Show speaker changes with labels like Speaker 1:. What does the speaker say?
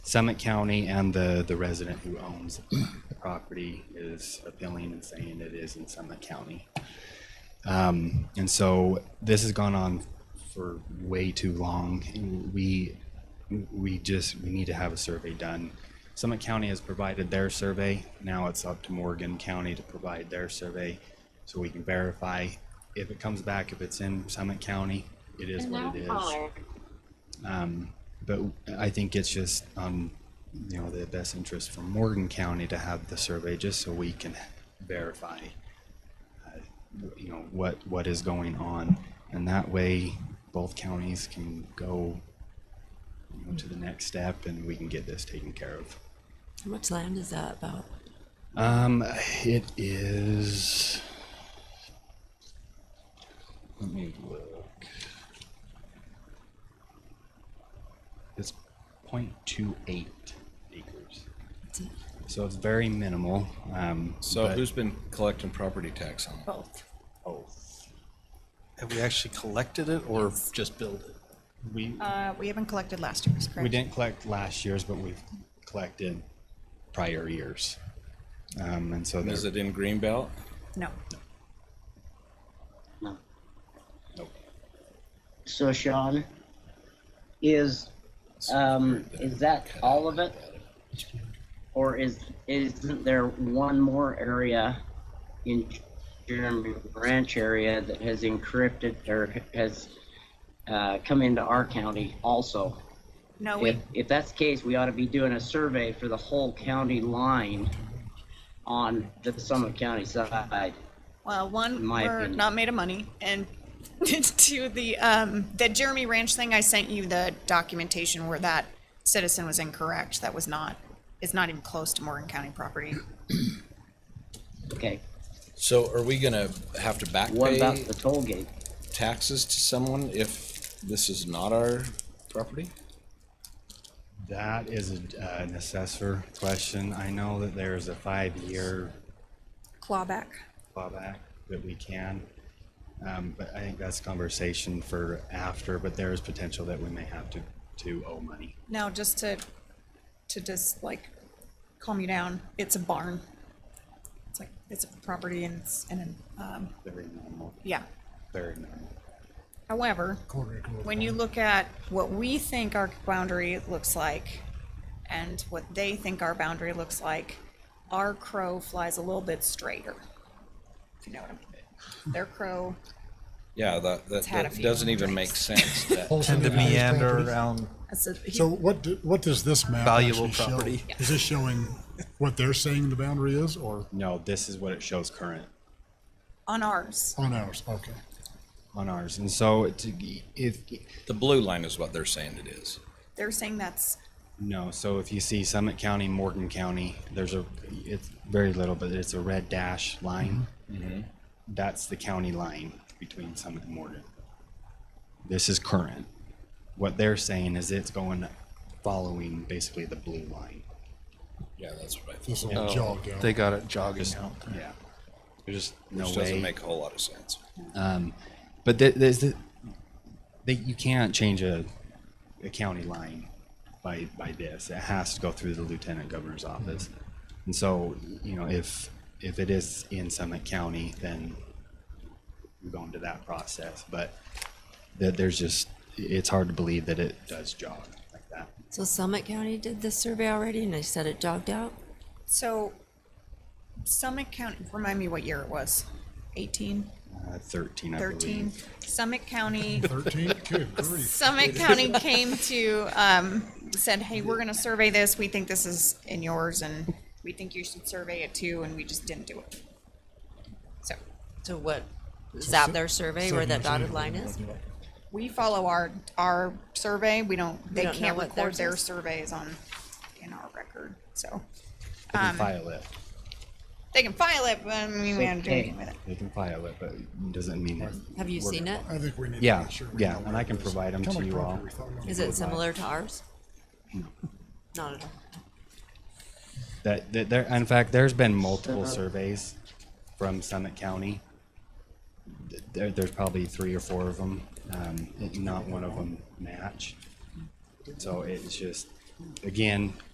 Speaker 1: Summit County and the, the resident who owns the property is appealing and saying it is in Summit County. Um, and so this has gone on for way too long. And We, we just, we need to have a survey done. Summit County has provided their survey. Now it's up to Morgan County to provide their survey so we can verify. If it comes back, if it's in Summit County, it is what it is. Um, but I think it's just, um, you know, the best interest for Morgan County to have the survey just so we can verify, uh, you know, what, what is going on. And that way, both counties can go, you know, to the next step and we can get this taken care of.
Speaker 2: How much land is that about?
Speaker 1: Um, it is. Let me look. It's 0.28 acres.
Speaker 2: It's a-
Speaker 1: So it's very minimal. Um,
Speaker 3: So
Speaker 1: but-
Speaker 3: who's been collecting property tax on it?
Speaker 2: Both.
Speaker 1: Oh,
Speaker 4: Have we actually collected it or just billed it?
Speaker 1: we,
Speaker 5: Uh, we haven't collected last year's, correct?
Speaker 1: we didn't collect last year's, but we've collected prior years. Um, and so
Speaker 3: And
Speaker 1: there's
Speaker 3: Is it in Greenbelt?
Speaker 5: No.
Speaker 6: No.
Speaker 1: Nope.
Speaker 6: So Sean, is, um, is that all of it? Or is, isn't there one more area in Jeremy Branch area that has encrypted or has, uh, come into our county also?
Speaker 5: No,
Speaker 6: If,
Speaker 5: we,
Speaker 6: if that's the case, we ought to be doing a survey for the whole county line on the Summit County side.
Speaker 5: well, one,
Speaker 6: my
Speaker 5: we're
Speaker 6: opinion.
Speaker 5: not made of money, and to the, um, the Jeremy Ranch thing, I sent you the documentation where that citizen was incorrect. That was not, it's not even close to Morgan County property.
Speaker 6: Okay,
Speaker 3: So are we gonna have to back
Speaker 6: what about
Speaker 3: pay
Speaker 6: the toll gate?
Speaker 3: taxes to someone if this is not our property?
Speaker 1: That is a, uh, an assessor question. I know that there's a five-year
Speaker 2: Clawback.
Speaker 1: clawback that we can. Um, but I think that's a conversation for after, but there is potential that we may have to, to owe money.
Speaker 5: No, just to, to just like calm you down, it's a barn. It's like, it's a property and it's, and, um,
Speaker 1: Very normal,
Speaker 5: yeah.
Speaker 1: very normal.
Speaker 5: However, when you look at what we think our boundary looks like and what they think our boundary looks like, our crow flies a little bit straighter. If you know what I mean. Their crow,
Speaker 3: Yeah, that, that,
Speaker 5: It's had a
Speaker 3: that
Speaker 5: few
Speaker 3: doesn't even make
Speaker 5: drinks.
Speaker 3: sense. that-
Speaker 4: Tend to meander around.
Speaker 5: that's a,
Speaker 7: So what, do- what does this map
Speaker 4: Valuable
Speaker 7: actually show?
Speaker 4: property.
Speaker 7: Is this showing what they're saying the boundary is or
Speaker 1: No, this is what it shows current
Speaker 5: on ours,
Speaker 7: on ours? Okay.
Speaker 1: on ours. And so to, if,
Speaker 3: The blue line is what they're saying it is.
Speaker 5: they're saying that's,
Speaker 1: no, so if you see Summit County, Morgan County, there's a, it's very little, but it's a red dash line. That's the county line between Summit and Morgan. This is current. What they're saying is it's going following basically the blue line.
Speaker 3: Yeah, that's what I
Speaker 7: This
Speaker 3: think.
Speaker 7: will jog down.
Speaker 4: They got it jogging out.
Speaker 1: Yeah. There's just no
Speaker 3: Which
Speaker 1: way.
Speaker 3: doesn't make a whole lot of sense.
Speaker 1: but th- there's the, they, you can't change a, a county line by by this. It has to go through the lieutenant governor's office. And so, you know, if if it is in Summit County, then we go into that process. But that there's just it's hard to believe that it does jog like that.
Speaker 2: So Summit County did this survey already and they said it jogged out?
Speaker 5: so Summit County, remind me what year it was? Eighteen,
Speaker 1: Uh, Thirteen, I
Speaker 5: thirteen?
Speaker 1: believe.
Speaker 5: Summit County
Speaker 7: 13? Good grief.
Speaker 5: Summit County came to, um, said, hey, we're gonna survey this, we think this is in yours, and we think you should survey it too, and we just didn't do it. So,
Speaker 2: So what, is that their survey where that dotted line is?
Speaker 5: we follow our, our survey, we don't, they
Speaker 2: don't know
Speaker 5: can't
Speaker 2: what
Speaker 5: record
Speaker 2: theirs
Speaker 5: their
Speaker 2: is?
Speaker 5: surveys on, in our record, so.
Speaker 1: They can file
Speaker 2: um,
Speaker 1: it.
Speaker 5: They can file it, but I mean, we don't do
Speaker 6: Okay.
Speaker 5: anything with it.
Speaker 1: They can file it, but it doesn't mean it.
Speaker 2: Have you seen it?
Speaker 7: I think we need to
Speaker 1: Yeah,
Speaker 7: make sure. we
Speaker 1: yeah,
Speaker 7: know
Speaker 1: and
Speaker 7: where
Speaker 1: I
Speaker 7: it
Speaker 1: can
Speaker 7: is.
Speaker 1: provide 'em
Speaker 7: Kind of
Speaker 1: to you
Speaker 7: property
Speaker 1: all.
Speaker 7: we thought about.
Speaker 2: Is it similar to ours? Not at all.
Speaker 1: That, that there, in fact, there's been multiple surveys from Summit County. Th- There, there's probably three or four of them, um, not one of them match. So it's just, again,